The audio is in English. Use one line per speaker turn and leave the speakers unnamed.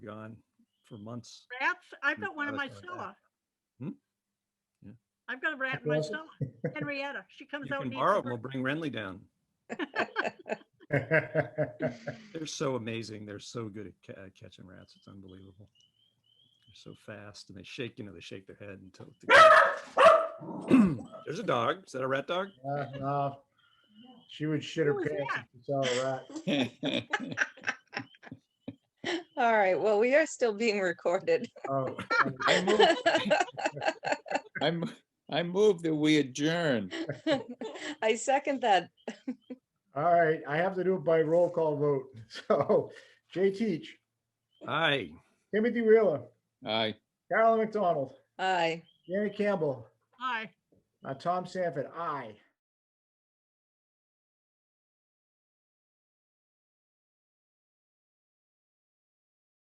gone for months.
Rats, I've got one in my
Rats like that.
cellar.
Hmm? Yeah.
I've got a rat in my
Well-
cellar, Henrietta, she
You
comes out.
can
and eats
borrow
the
them, we'll
bird.
bring Renly down.
Well,
They're so amazing. They're so good at ca- at catching rats. It's unbelievable. They're so fast and they shake, you know, they shake their head and tilt. the- There's a dog. Is that a rat dog?
no, She would shit her
Who was
pants
that?
if she saw a rat.
All right, well, we are still being recorded.
Oh,
I move, I mo- I move that we adjourn.
I second that.
All right, I have to do it by roll call vote. So Jay Teach,
Hi.
Timothy Wheeler,
Aye.
Carolyn McDonald,
Aye.
Janet Campbell,
Aye.
uh, Tom Sanford, aye.